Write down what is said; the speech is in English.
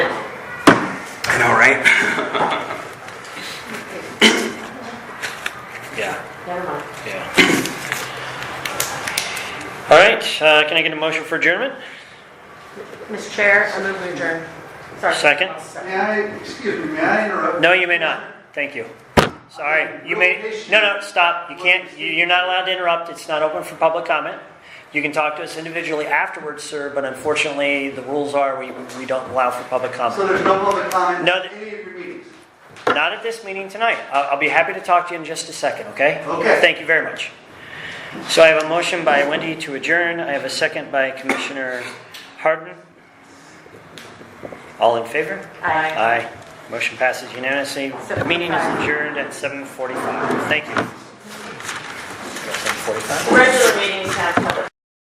know, right? Yeah, Never mind. yeah. All right, uh, can I get a motion for adjournment? Mr. Chair, I move we adjourn. Sorry. Second. May I, excuse me, may I interrupt? No, you may not. Thank you. Sorry, you may, no, no, stop. You can't, you- you're not allowed to interrupt. It's not open for public comment. You can talk to us individually afterwards, sir, but unfortunately, the rules are we, we don't allow for public So comment. there's no public comment No, in any of your meetings? Not at this meeting tonight. I'll, I'll be happy to talk to you in just a second, okay? Okay. Thank you very much. So I have a motion by Wendy to adjourn. I have a second by Commissioner Harden. All in favor? Aye. Aye. Motion passes unanimously. The meeting is adjourned at 7:45. Thank you. 7:45? Regular meetings have public